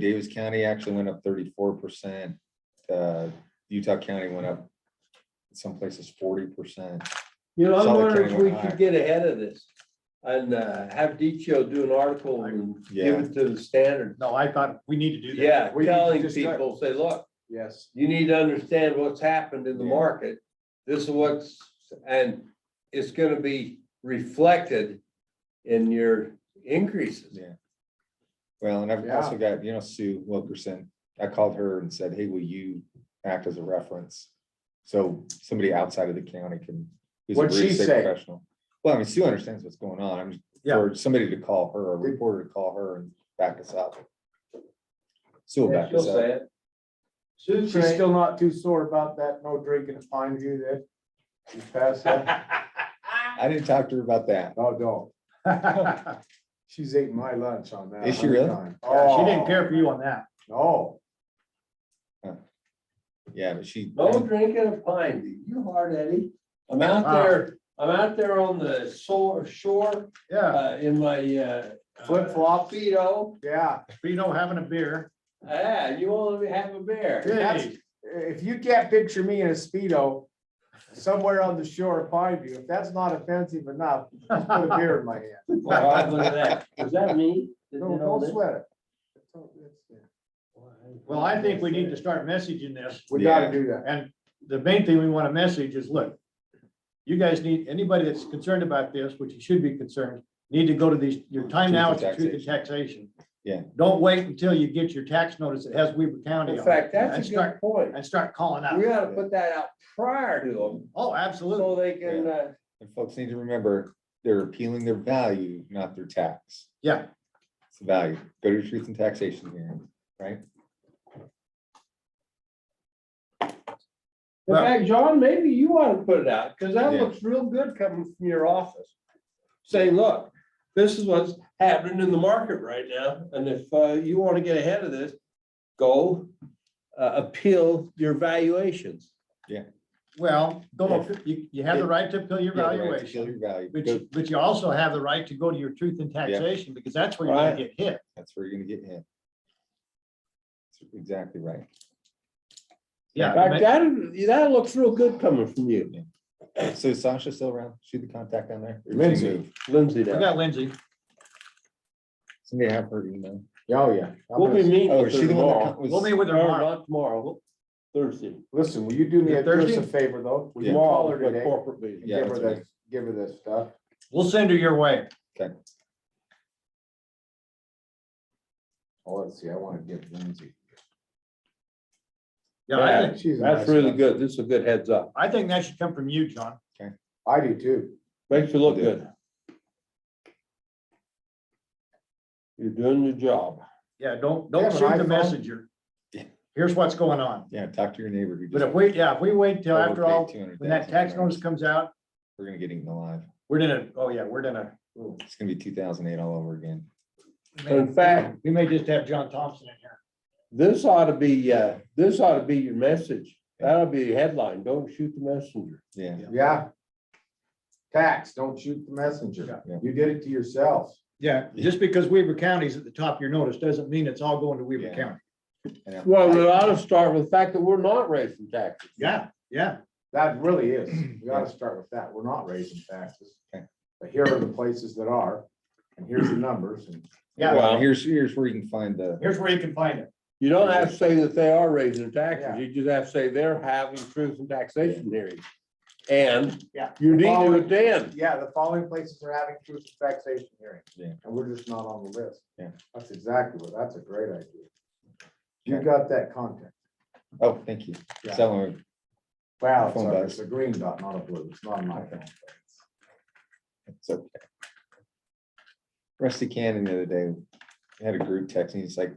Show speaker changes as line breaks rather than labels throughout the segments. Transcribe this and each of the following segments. Davis County actually went up thirty-four percent. Uh, Utah County went up some places forty percent.
You know, I'm
Solid
wondering if
County
we
went higher.
could get ahead of this and uh, have DCO do an article and give
Yeah.
it to the standard.
No, I thought we need to do that.
Yeah,
We need to
telling
just start-
people, say, look,
Yes.
you need to understand what's happened in the
Yeah.
market. This is what's, and it's gonna be reflected in your increases.
Yeah. Well, and I've also got, you know, Sue Wilkerson, I called her and said, hey, will you act as a reference? So somebody outside of the county can. who's a
What'd
real
she
estate
say?
professional. Well, I mean, Sue understands what's going on. I'm,
Yeah.
for somebody to call her, a reporter to call her and back us up. Sue will
Yeah,
back
she'll
us up.
say it. Sue
She's
Craig.
still not too sore about that no drinking at Pine View there. You pass that?
I didn't talk to her about that.
No, don't. She's ate my lunch on that.
Is she
one
really?
time.
Yeah, She didn't
Oh,
care for you on that.
No,
Yeah, but she.
No drinking of pine, View. you hard Eddie. I'm out there, I'm out there on the shore, shore,
Yeah,
uh, in my, uh.
Flip flop.
Speedo.
yeah.
but you know, having a beer.
Ah, you want to have a beer?
Hey,
If you can't picture me in a Speedo somewhere on the shore of Pine View, if that's not offensive enough, just put a beer in my hand.
Wow, look at that. Is that me? that
No,
did all
don't
this?
sweat it. It's all- it's- yeah.
Well, I think we need to start messaging this.
We gotta
Yeah.
do that.
And the main thing we want to message is, look, you guys need, anybody that's concerned about this, which you should be concerned, need to go to these, your time now is the truth in taxation.
Yeah.
Don't wait until you get your tax notice that has Weaver County on it.
In fact,
and
that's a
start-
good point.
And start calling out.
We ought to put that out prior to them,
Oh, absolutely.
so they can, uh,
And folks need to remember, they're appealing their value, not their tax.
Yeah,
It's the value. Go to your truth and taxation hearing.
in
Well-
fact, John, maybe you ought to put it out, because that
Yeah.
looks real good coming from your office. Say, look, this is what's happening in the market right now, and if, uh, you want to get ahead of this, go, uh, appeal your valuations.
well, go, you, you have the right to appeal your
Yeah, right, appeal
valuation,
Your value.
but,
Go-
you- but you also have the right to go to your truth in taxation, because that's where you're gonna
Right.
get hit.
That's where you're gonna get hit. That's Exactly right.
Yeah.
In fact, that, that looks real good coming from you,
So is Sasha still around? She the contact down there? Or did she
Lindsay.
move?
Lindsay.
We
down.
got Lindsay.
Somebody have her email.
Oh, yeah. I'm
We'll be
gonna-
meeting
Oh,
with
is
her
she the one that
tomorrow.
co-
We'll
was,
be with her
Or
tomorrow.
not tomorrow, Thursday.
Listen, will you do me a, do us
Thursday?
a favor though? Will you
Tomorrow,
call her
the
today?
corporate meeting.
and
Yeah,
Give her
that's
this, give her this stuff.
We'll send her your way.
Oh, let's see, I wanna give Lindsay.
Yeah, I
Yeah.
think,
She's a nice
That's really
guy.
good. This is a good heads up.
I think that should come from you, John.
I do too.
Makes you look
Yeah.
good. You're doing your job.
Yeah, don't, don't
Yeah, but
shoot the
iPhone-
messenger.
Yeah.
Here's what's going on.
yeah, talk to your neighbor. who
But
just
if we, yeah, if we wait till after
overpaid
all, when that
$200,000.
tax notice comes out,
We're gonna get eaten alive.
we're gonna, oh yeah, we're gonna,
It's gonna be two thousand eight all over again.
In fact,
we may just have John Thompson in here.
this ought to be, uh, this ought to be your message. That'll be your headline. Don't shoot the messenger.
Yeah,
Yeah. Tax, don't shoot the messenger.
Yeah.
You did it to yourself.
Yeah, just because Weaver County's at the top of your notice doesn't mean it's all going to Weaver
Yeah.
County.
Yeah.
Well, we ought to start with the fact that we're not raising taxes.
Yeah, yeah.
That really is. We gotta start with that. We're not raising taxes.
Okay.
But here are the places that are, and here's the numbers and.
Yeah.
Well, here's, here's where you can find the,
Here's where you can find it.
You don't have to say that they are raising their taxes.
Yeah.
You just have to say they're having truth and taxation hearings. And
Yeah.
you need to
Following-
attend.
Yeah, the following places are having truth and taxation hearings.
Yeah.
And we're just not on the list.
Yeah.
That's exactly what, that's a great idea. You got that content.
oh, thank you.
Yeah.
So,
Wow, it's
Phone
a-
does.
it's a green dot, not a blue. It's not my phone.
it's okay. Rusty Cannon the other day had a group text and he's like,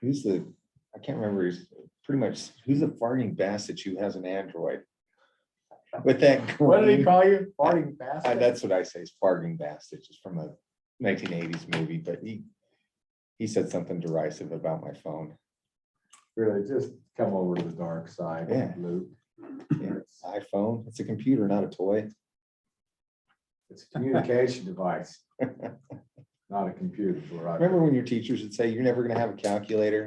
who's the, I can't remember, he's pretty much, who's the farting bastard who has an Android? With that.
What did he
green-
call you? Farting bastard?
Uh, that's what I say, is farting bastard, just from a nineteen eighties movie, but he, he said something derisive about my phone.
Really, just come over to the dark side,
Yeah.
Luke.
Yeah. iPhone, it's a computer, not a toy.
It's a communication device.
not a computer for our.
Remember when your teachers would say, you're never gonna have a calculator?